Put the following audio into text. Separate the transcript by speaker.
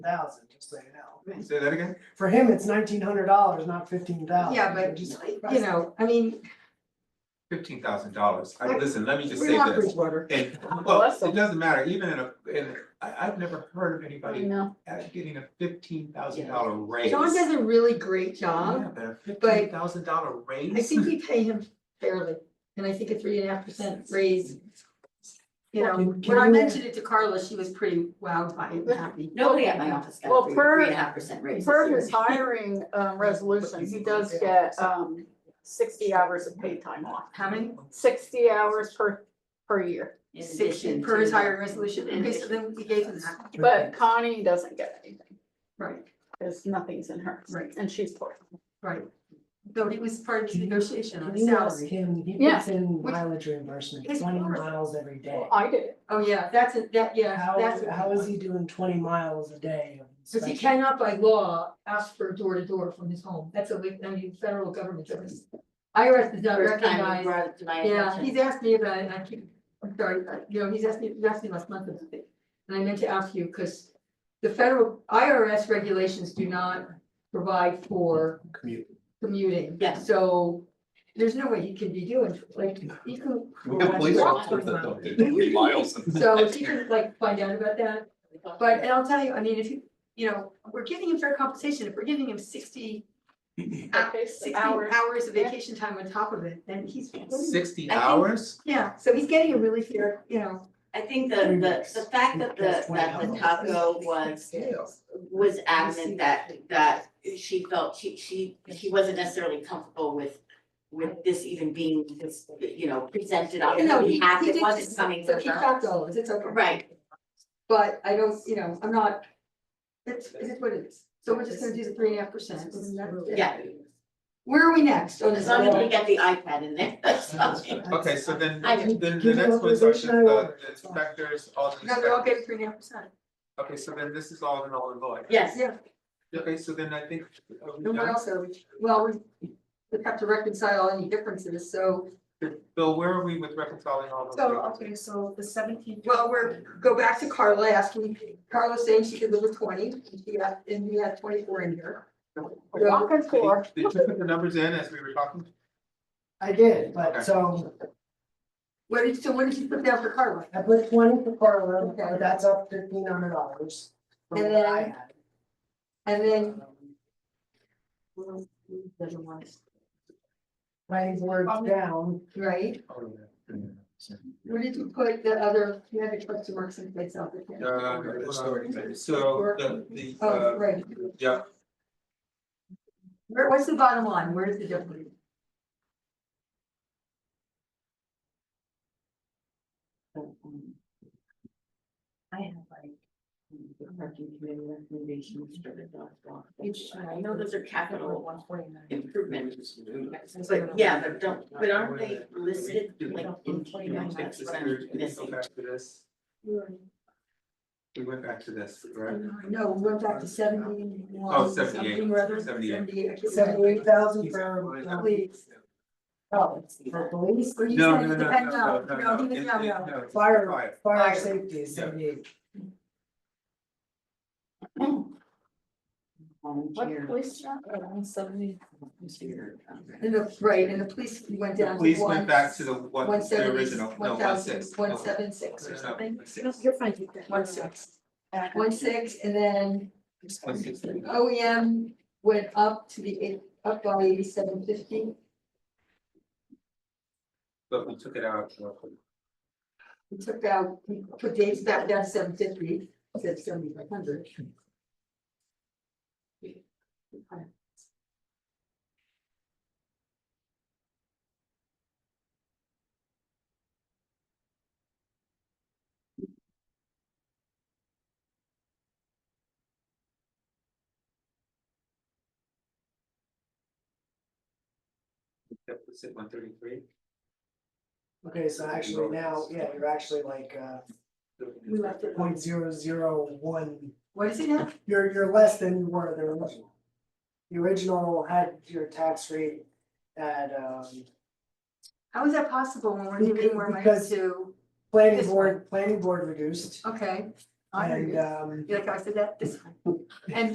Speaker 1: thousand, just so you know.
Speaker 2: Say that again?
Speaker 1: For him, it's nineteen hundred dollars, not fifteen thousand.
Speaker 3: Yeah, but, uh, you know, I mean,
Speaker 2: Fifteen thousand dollars. I, listen, let me just
Speaker 3: we're
Speaker 2: say
Speaker 3: not
Speaker 2: this.
Speaker 3: Bridgewater.
Speaker 2: And, well,
Speaker 4: bless
Speaker 2: it
Speaker 4: 'em.
Speaker 2: doesn't matter, even in a, in, I, I've never heard of
Speaker 4: I
Speaker 2: anybody
Speaker 4: know.
Speaker 2: at getting a fifteen thousand dollar raise.
Speaker 3: Mm. John does a really great
Speaker 2: Yeah,
Speaker 3: job.
Speaker 2: but a fifteen thousand dollar raise?
Speaker 3: I think we pay him fairly, and I think a three and a half percent raise. You know,
Speaker 1: Well, can- can
Speaker 3: when I
Speaker 1: you-
Speaker 3: mentioned it to Carla, she was pretty wowed by it, and happy.
Speaker 5: Nobody at my office
Speaker 4: Well,
Speaker 5: got three,
Speaker 4: per-
Speaker 5: three and a half percent raise.
Speaker 4: Per
Speaker 5: this
Speaker 4: his
Speaker 5: year.
Speaker 4: hiring um resolution, he does get um sixty hours of paid time off,
Speaker 3: How many?
Speaker 4: sixty hours per per year.
Speaker 5: In
Speaker 3: Sixty
Speaker 5: addition
Speaker 3: per
Speaker 5: to the-
Speaker 3: retiring resolution, okay, so then we gave him that,
Speaker 4: But Connie doesn't get anything,
Speaker 3: right,
Speaker 4: because nothing's in her,
Speaker 3: right,
Speaker 4: and she's poor.
Speaker 3: right. Though he was part of his negotiation on
Speaker 1: Can
Speaker 3: his
Speaker 1: you ask
Speaker 3: salary.
Speaker 1: him, he
Speaker 4: Yeah.
Speaker 1: puts in
Speaker 3: Which-
Speaker 1: mileage reimbursement,
Speaker 3: It's
Speaker 1: twenty
Speaker 3: hard.
Speaker 1: miles every day.
Speaker 4: Well, I did, it.
Speaker 3: Oh, yeah, that's a, that, yeah,
Speaker 1: How,
Speaker 3: that's. a-
Speaker 1: how is he doing twenty miles a day? of
Speaker 3: Because he
Speaker 1: inspection?
Speaker 3: cannot by law ask for door to door from his home, that's a, li- I mean, federal government service. IRS does not
Speaker 5: First time you
Speaker 3: recognize,
Speaker 5: brought it to my
Speaker 3: yeah, he's
Speaker 5: attention.
Speaker 3: asked me about it, and I keep, I'm sorry, I- you know, he's asked me, he asked me last month about it. And I meant to ask you, because the federal IRS regulations do not provide for
Speaker 2: Commute.
Speaker 3: commuting.
Speaker 5: Yeah.
Speaker 3: So there's no way he can be doing, like, he could.
Speaker 2: We have police
Speaker 3: walk
Speaker 2: officers that
Speaker 3: 20
Speaker 2: don't do
Speaker 3: miles.
Speaker 2: three miles.
Speaker 3: So if you could like find out about that, but and I'll tell you, I mean, if you, you know, we're giving him fair compensation, if we're giving him sixty. hou-
Speaker 5: Ah,
Speaker 4: Okay, so
Speaker 3: Sixty
Speaker 4: hours.
Speaker 3: hours of
Speaker 4: Yeah.
Speaker 3: vacation time on top of it, then he's,
Speaker 2: Sixty
Speaker 5: I think-
Speaker 2: hours?
Speaker 3: yeah, so he's getting a really fair, you know,
Speaker 5: I think the, the, the fact that the, that the taco was, was adamant that, that she felt, she, she, she wasn't necessarily comfortable with, with this even being, this, you know, presented on
Speaker 3: you know,
Speaker 5: his
Speaker 3: he
Speaker 5: behalf,
Speaker 3: he
Speaker 5: it
Speaker 3: did
Speaker 5: wasn't
Speaker 3: something,
Speaker 5: coming
Speaker 3: so
Speaker 5: from
Speaker 3: he
Speaker 5: her.
Speaker 3: got dollars, it's okay.
Speaker 5: Right,
Speaker 3: But I don't, you know, I'm not, it's, it's what it is, so we're just gonna do the three and a half percent. and that's it.
Speaker 5: yeah,
Speaker 3: Where are we next Oh, on this?
Speaker 5: as long as we
Speaker 3: one?
Speaker 5: get the iPad in there. that's fine.
Speaker 2: Okay, so then,
Speaker 5: I
Speaker 2: then the
Speaker 1: Give me
Speaker 2: next ones are just
Speaker 1: authorization, I
Speaker 2: the
Speaker 1: order.
Speaker 2: the inspectors, all the
Speaker 3: No, we all
Speaker 2: inspectors.
Speaker 3: get three and a half percent,
Speaker 2: Okay, so then this is all in all in Lloyd.
Speaker 5: Yes,
Speaker 3: yeah,
Speaker 2: Okay, so then I think. are we
Speaker 3: no one
Speaker 2: done?
Speaker 3: else, are we? well, we, we have to reconcile any differences, so.
Speaker 2: Bill, where are we with reconciling all those?
Speaker 6: So, okay, so the seventeenth.
Speaker 3: Well, we're, go back to Carla, asking, Carla saying she could live with twenty, and she had, and we had twenty-four in here. So,
Speaker 4: Walking poor.
Speaker 2: Did you put the numbers in as we were talking?
Speaker 1: I did,
Speaker 2: Okay.
Speaker 1: but so
Speaker 3: what did, so what did you put down for Carla?
Speaker 1: I put twenty for Carla,
Speaker 3: Okay.
Speaker 1: but that's up fifteen hundred dollars.
Speaker 3: And then- And then.
Speaker 1: Planning board's
Speaker 3: Um,
Speaker 1: down,
Speaker 3: Right,
Speaker 2: Oh, yeah.
Speaker 3: where did you put the other, you had to put some marks in place out there.
Speaker 2: Uh, so the the
Speaker 3: Oh,
Speaker 2: uh,
Speaker 3: right,
Speaker 2: yeah,
Speaker 3: where, what's the bottom line, where is the difference?
Speaker 5: I have like the parking committee recommendations for the dog walk. Which I know those are capital
Speaker 6: One forty-nine.
Speaker 5: improvements, but yeah, but don't, but aren't they listed like in
Speaker 2: we
Speaker 5: twenty-nine,
Speaker 2: take
Speaker 5: that's
Speaker 2: this
Speaker 5: what I'm
Speaker 2: through, we go
Speaker 5: missing.
Speaker 2: back to this, we went back to this, right?
Speaker 3: No, we went back to seventy-one,
Speaker 2: Oh, 78,
Speaker 3: something or other,
Speaker 2: 78.
Speaker 3: seventy-eight. I can't remember.
Speaker 1: seventy-eight thousand for, um,
Speaker 3: Please.
Speaker 1: oh, for police,
Speaker 3: Or you
Speaker 2: No,
Speaker 3: said
Speaker 2: no,
Speaker 3: it
Speaker 2: no,
Speaker 3: depend-
Speaker 2: no, no, no,
Speaker 3: he
Speaker 2: no,
Speaker 3: was-
Speaker 2: it-
Speaker 3: no,
Speaker 2: it-
Speaker 3: no.
Speaker 2: no, it's
Speaker 1: fire,
Speaker 2: fire.
Speaker 1: fire
Speaker 3: Fire.
Speaker 1: safety is
Speaker 2: Yeah.
Speaker 1: seventy-eight.
Speaker 4: What police job? One seventy.
Speaker 3: And the, right, and the police went
Speaker 2: The
Speaker 3: down to
Speaker 2: police
Speaker 3: one,
Speaker 2: went back to the one,
Speaker 3: one
Speaker 2: the
Speaker 3: seventy,
Speaker 2: original, no,
Speaker 3: one
Speaker 2: one
Speaker 3: thousand,
Speaker 2: six.
Speaker 3: one
Speaker 2: no,
Speaker 3: seven six
Speaker 2: no,
Speaker 3: or
Speaker 2: no,
Speaker 3: something.
Speaker 2: one six.
Speaker 6: You're fine.
Speaker 3: One six, one six, and then
Speaker 2: One six.
Speaker 3: OEM went up to the, eight- up by eighty-seven fifty.
Speaker 2: But we took it out.
Speaker 3: We took out, we put Dave's back down seven fifty, said seventy-five hundred.
Speaker 2: Deficit one thirty-three.
Speaker 1: Okay, so actually now, yeah, you're actually like, uh,
Speaker 3: We left it,
Speaker 1: point zero zero one,
Speaker 3: what is it now?
Speaker 1: you're, you're less than you were the original. The original had your tax rate at, um,
Speaker 3: How is that possible when we're giving more money
Speaker 1: Because-
Speaker 3: to,
Speaker 1: planning
Speaker 3: This
Speaker 1: board, planning board reduced,
Speaker 3: okay, I heard
Speaker 1: and
Speaker 3: you.
Speaker 1: um.
Speaker 3: You like how I said that this time? And